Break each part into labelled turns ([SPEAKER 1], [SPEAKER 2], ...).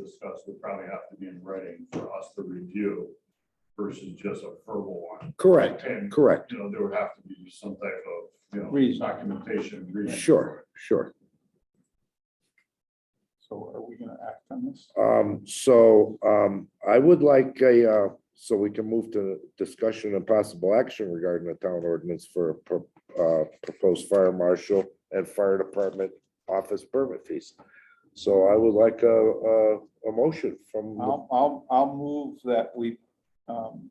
[SPEAKER 1] discussed would probably have to be in writing for us to review versus just a verbal one.
[SPEAKER 2] Correct,
[SPEAKER 1] And,
[SPEAKER 2] correct.
[SPEAKER 1] you know, there would have to be some type of, you know,
[SPEAKER 3] Reason.
[SPEAKER 1] documentation. reason.
[SPEAKER 2] Sure, sure.
[SPEAKER 3] So are we gonna act on this?
[SPEAKER 2] Um, so, um, I would like a, uh, so we can move to discussion and possible action regarding the town ordinance for a pro- uh, proposed fire marshal and fire department office permit fees. So I would like a, a, a motion from, the-
[SPEAKER 3] I'll, I'll, I'll move that we um,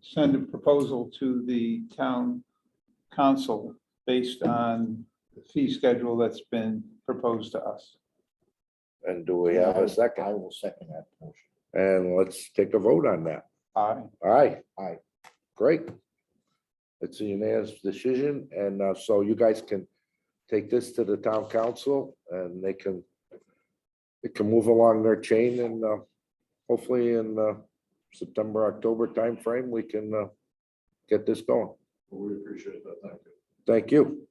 [SPEAKER 3] send a proposal to the town council based on the fee schedule that's been proposed to us.
[SPEAKER 2] and do we have a
[SPEAKER 4] I
[SPEAKER 2] second?
[SPEAKER 4] will second that motion.
[SPEAKER 2] And let's take a vote on that.
[SPEAKER 3] Aye.
[SPEAKER 2] Aye.
[SPEAKER 4] Aye.
[SPEAKER 2] Great. It's a unanimous decision, and uh, so you guys can take this to the town council, and they can, it can move along their chain, and uh, hopefully in uh, September, October timeframe, we can uh, get this going.
[SPEAKER 1] We appreciate that. Thank you.
[SPEAKER 2] Thank you.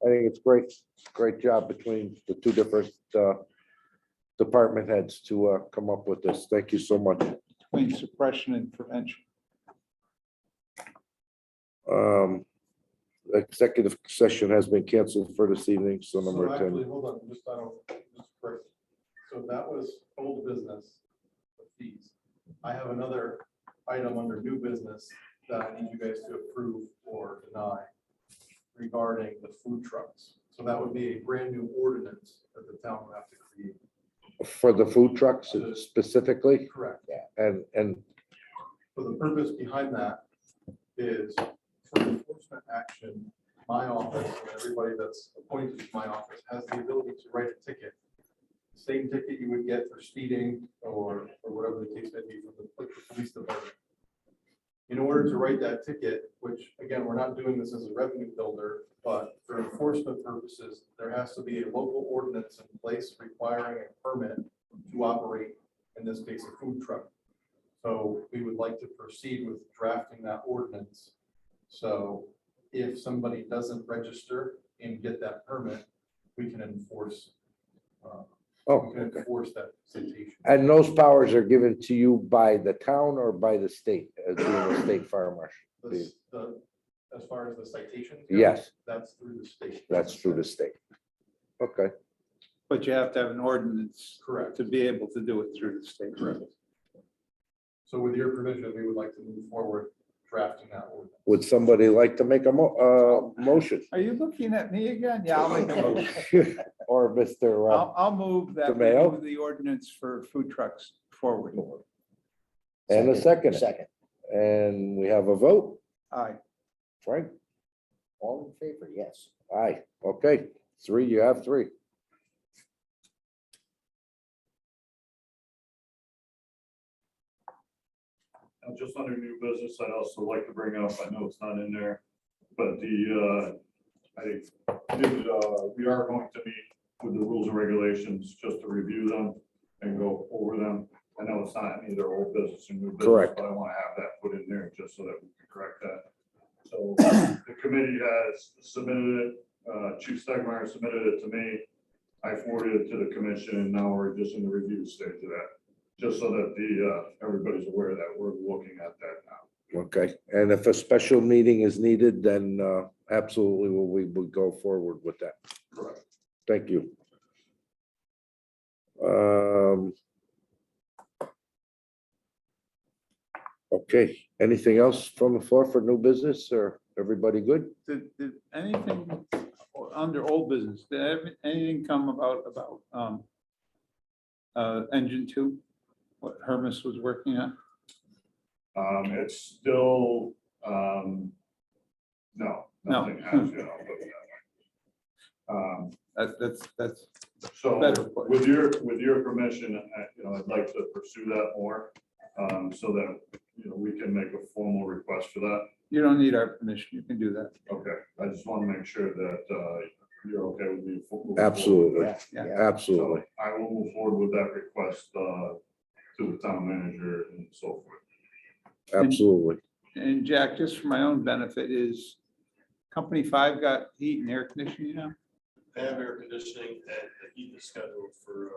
[SPEAKER 2] I think it's great, great job between the two different uh, department heads to uh, come up with this. Thank you so much.
[SPEAKER 3] Between suppression and prevention.
[SPEAKER 2] Um Executive session has been canceled for this evening, so number
[SPEAKER 5] So
[SPEAKER 2] 10.
[SPEAKER 5] actually, Hold on, just, I don't, just break. So that was old business, the fees. I have another item under new business that I need you guys to approve or deny regarding the food trucks. So that would be a brand new ordinance that the town would have to create.
[SPEAKER 2] For the food trucks specifically,
[SPEAKER 5] Correct.
[SPEAKER 2] and, and,
[SPEAKER 5] So the purpose behind that is for enforcement action, my office and everybody that's appointed to my office has the ability to write a ticket. Same ticket you would get for speeding or, or whatever the case may be from the pol- the police department. In order to write that ticket, which again, we're not doing this as a revenue builder, but for enforcement purposes, there has to be a local ordinance in place requiring a permit to operate, in this case, a food truck. So we would like to proceed with drafting that ordinance. So if somebody doesn't register and get that permit, we can enforce, uh, we
[SPEAKER 2] oh,
[SPEAKER 5] can enforce that citation.
[SPEAKER 2] and those powers are given to you by the town or by the state, as being the state fire marshal?
[SPEAKER 5] The- the- As far as the citation.
[SPEAKER 2] Yes,
[SPEAKER 5] That's through the state.
[SPEAKER 2] that's through the state. Okay,
[SPEAKER 3] But you have to have an ordinance
[SPEAKER 5] Correct.
[SPEAKER 3] to be able to do it through the state.
[SPEAKER 5] Correct. So with your permission, we would like to move forward drafting that ordinance.
[SPEAKER 2] would somebody like to make a mo, uh, motion?
[SPEAKER 3] Are you looking at me again? Yeah, I'll make a motion.
[SPEAKER 2] Or Mr. uh,
[SPEAKER 3] I'll, I'll move that we
[SPEAKER 2] DeMayo?
[SPEAKER 3] move the ordinance for food trucks forward.
[SPEAKER 2] And a second.
[SPEAKER 4] Second.
[SPEAKER 2] And we have a vote,
[SPEAKER 3] Aye.
[SPEAKER 2] Frank?
[SPEAKER 4] All in favor, yes.
[SPEAKER 2] Aye, okay, three, you have three.
[SPEAKER 1] Now, just under new business, I'd also like to bring up, I know it's not in there, but the, uh, I did, uh, we are going to meet with the rules and regulations just to review them and go over them. I know it's not in either old business and new business.
[SPEAKER 2] Correct.
[SPEAKER 1] But I want to have that put in there just so that we can correct that. So the committee has submitted it, uh, Chief Stegmeyer submitted it to me. I forwarded it to the commission and now we're just in the review stage of that just so that the, uh, everybody's aware that we're looking at that now.
[SPEAKER 2] Okay, and if a special meeting is needed, then uh, absolutely, we we would go forward with that.
[SPEAKER 1] Correct.
[SPEAKER 2] Thank you. Um. Okay, anything else from the floor for new business or everybody good?
[SPEAKER 3] Did, did anything or under old business, did ev- anything come about, about, um, uh, engine two, what Hermes was working on?
[SPEAKER 1] Um, it's still, um, no,
[SPEAKER 3] No.
[SPEAKER 1] nothing has, you know, but, um,
[SPEAKER 3] That, that's, that's
[SPEAKER 1] so
[SPEAKER 3] better. put.
[SPEAKER 1] with your, with your permission, I, you know, I'd like to pursue that more, um, so that, you know, we can make a formal request for that.
[SPEAKER 3] You don't need our permission, you can do that.
[SPEAKER 1] Okay, I just want to make sure that, uh, you're okay with me. fo- moving forward.
[SPEAKER 2] Absolutely,
[SPEAKER 4] Yeah,
[SPEAKER 3] Yeah.
[SPEAKER 4] yeah.
[SPEAKER 2] absolutely.
[SPEAKER 1] So I will move forward with that request, uh, to the town manager and so forth.
[SPEAKER 2] Absolutely.
[SPEAKER 3] And Jack, just for my own benefit, is Company Five got heat and air conditioning now?
[SPEAKER 5] They have air conditioning and the heat is scheduled for uh,